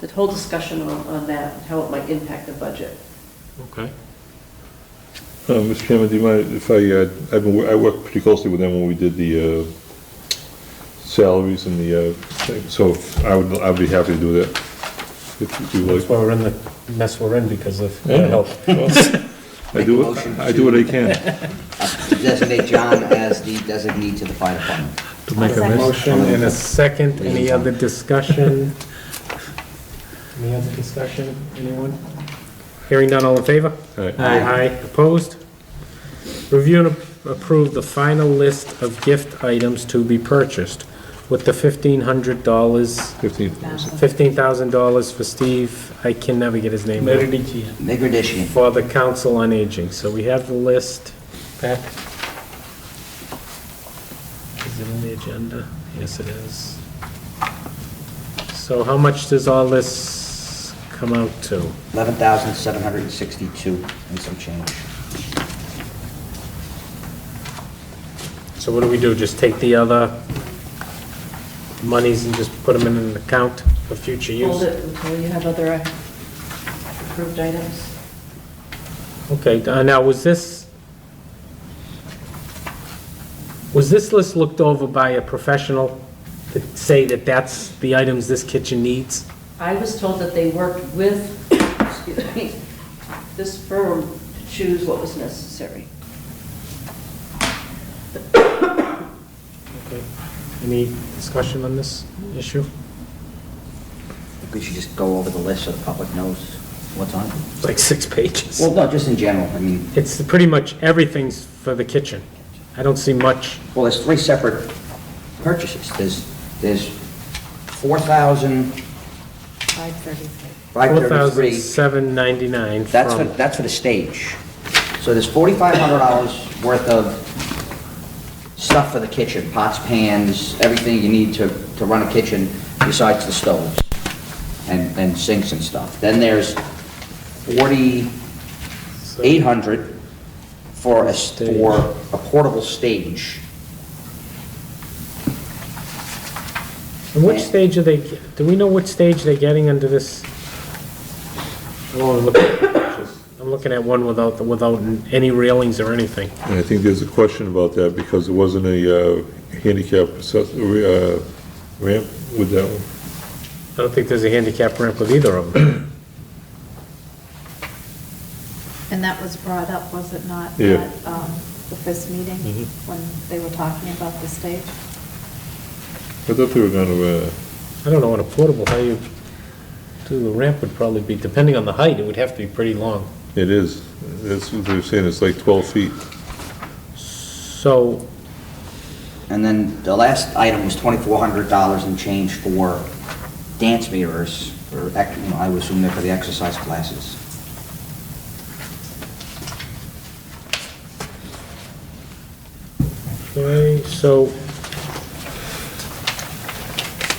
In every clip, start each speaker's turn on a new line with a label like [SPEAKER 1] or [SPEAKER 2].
[SPEAKER 1] the whole discussion on, on that, and how it might impact the budget.
[SPEAKER 2] Okay.
[SPEAKER 3] Uh, Mr. Chairman, do you mind if I, uh, I've been, wo- I worked pretty closely with them when we did the uh, salaries and the, uh, thing, so I would, I'd be happy to do that. If you
[SPEAKER 4] That's
[SPEAKER 3] like.
[SPEAKER 4] why we're in the mess we're in because of
[SPEAKER 3] Yeah.
[SPEAKER 4] their help.
[SPEAKER 3] I do, what-
[SPEAKER 5] Motion
[SPEAKER 3] I do what I can.
[SPEAKER 5] to designate John as the designee to the fire department.
[SPEAKER 2] To make a
[SPEAKER 6] Second.
[SPEAKER 2] list.
[SPEAKER 4] Motion and a second, any other discussion? Any other discussion, anyone? Hearing none, all in favor?
[SPEAKER 3] All right.
[SPEAKER 5] Aye.
[SPEAKER 4] opposed? Review and approve the final list of gift items to be purchased with the fifteen hundred dollars,
[SPEAKER 3] Fifteen.
[SPEAKER 4] fifteen thousand dollars for Steve, I can never get his name. out.
[SPEAKER 5] Migradishian.
[SPEAKER 4] for the Council on Aging. So we have the list back. Is it on the agenda? Yes, it is. So how much does all this come out to?
[SPEAKER 5] eleven thousand seven hundred and sixty-two and some change.
[SPEAKER 4] So what do we do? Just take the other monies and just put them in an account for future
[SPEAKER 1] Hold
[SPEAKER 4] use?
[SPEAKER 1] it until you have other uh, approved items.
[SPEAKER 4] Okay, uh, now was this, was this list looked over by a professional to say that that's the items this kitchen needs?
[SPEAKER 1] I was told that they worked with, excuse me, this firm to choose what was necessary.
[SPEAKER 4] Okay. Any discussion on this issue?
[SPEAKER 5] We should just go over the list so the public knows what's on it.
[SPEAKER 4] It's like six pages.
[SPEAKER 5] Well, no, just in general, I mean,
[SPEAKER 4] It's pretty much everything's for the kitchen. I don't see much.
[SPEAKER 5] well, there's three separate purchases. There's, there's four thousand
[SPEAKER 6] Five thirty-three.
[SPEAKER 5] five thirty-three.
[SPEAKER 4] $4,799
[SPEAKER 5] That's for,
[SPEAKER 4] from,
[SPEAKER 5] that's for the stage. So there's forty-five hundred dollars worth of stuff for the kitchen, pots, pans, everything you need to, to run a kitchen besides the stoves and, and sinks and stuff. Then there's forty-eight hundred for a, s-
[SPEAKER 4] Stage.
[SPEAKER 5] for a portable stage.
[SPEAKER 4] and which stage are they, do we know which stage they're getting under this? I'm only looking at pictures. I'm looking at one without, without any railings or anything.
[SPEAKER 3] And I think there's a question about that because there wasn't a uh, handicap access- uh, ramp with that one.
[SPEAKER 4] I don't think there's a handicap ramp with either of them.
[SPEAKER 6] And that was brought up, was it not?
[SPEAKER 3] Yeah.
[SPEAKER 6] at, um, The first meeting, when they were talking about the stage?
[SPEAKER 3] I thought they were gonna, uh,
[SPEAKER 4] I don't know what a portable, how you, do the ramp would probably be, depending on the height, it would have to be pretty long.
[SPEAKER 3] it is, that's what they're saying, it's like twelve feet.
[SPEAKER 4] So,
[SPEAKER 5] And then the last item was twenty-four hundred dollars and change for dance mirrors, or, ec- you know, I would assume they're for the exercise classes.
[SPEAKER 4] okay, so,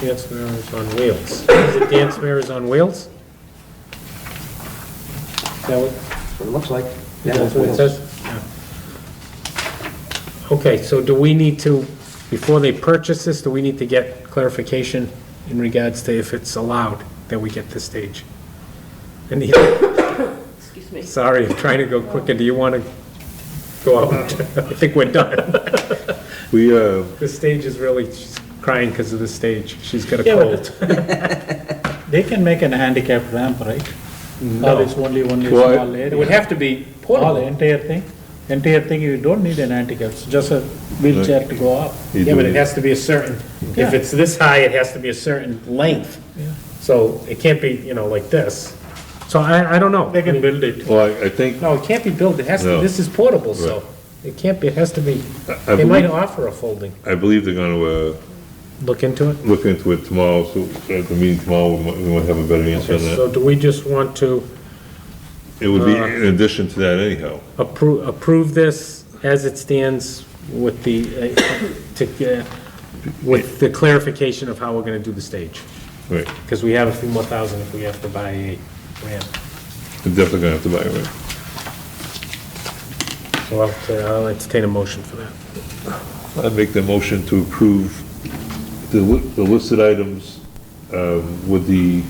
[SPEAKER 4] dance mirrors on wheels. Is it dance mirrors on wheels? Is that what-
[SPEAKER 5] That's what it looks like.
[SPEAKER 4] is that what it says? Yeah. Okay, so do we need to, before they purchase this, do we need to get clarification in regards to if it's allowed that we get this stage? And the,
[SPEAKER 1] Excuse me.
[SPEAKER 4] sorry, I'm trying to go quicker, do you want to go out? I think we're done.
[SPEAKER 3] We, uh,
[SPEAKER 4] The stage is really, she's crying because of the stage. She's got a
[SPEAKER 7] Yeah, but
[SPEAKER 4] cold.
[SPEAKER 7] They can make an handicap ramp, right? Or it's only, only
[SPEAKER 3] Well,
[SPEAKER 7] small area?
[SPEAKER 4] It would have to be
[SPEAKER 7] All
[SPEAKER 4] portable.
[SPEAKER 7] entire thing, entire thing, you don't need an handicap, it's just a wheelchair to go up.
[SPEAKER 3] you
[SPEAKER 4] Yeah, but
[SPEAKER 3] do-
[SPEAKER 4] it has to be a certain, if
[SPEAKER 7] Yeah.
[SPEAKER 4] it's this high, it has to be a certain length. So it can't be, you know, like this. So I, I don't know.
[SPEAKER 7] They can build it.
[SPEAKER 3] well, I- I think,
[SPEAKER 4] No, it can't be built. It has to,
[SPEAKER 3] No.
[SPEAKER 4] this is portable, so it can't be, it has to be,
[SPEAKER 3] I
[SPEAKER 4] they might
[SPEAKER 3] believe-
[SPEAKER 4] offer a folding.
[SPEAKER 3] I believe they're gonna, uh,
[SPEAKER 4] Look into it.
[SPEAKER 3] look into it tomorrow, so at the meeting tomorrow, we might, we might have a better answer on that.
[SPEAKER 4] So do we just want to
[SPEAKER 3] It would be in addition to that anyhow.
[SPEAKER 4] approve, approve this as it stands with the, uh, to, uh, with the clarification of how we're gonna do the stage?
[SPEAKER 3] Right,
[SPEAKER 4] Because we have a few more thousand if we have to buy a ramp.
[SPEAKER 3] we're definitely gonna have to buy it, right?
[SPEAKER 4] So I'll ta- I'll entertain a motion for that.
[SPEAKER 3] I make the motion to approve the, li- the listed items, um, with the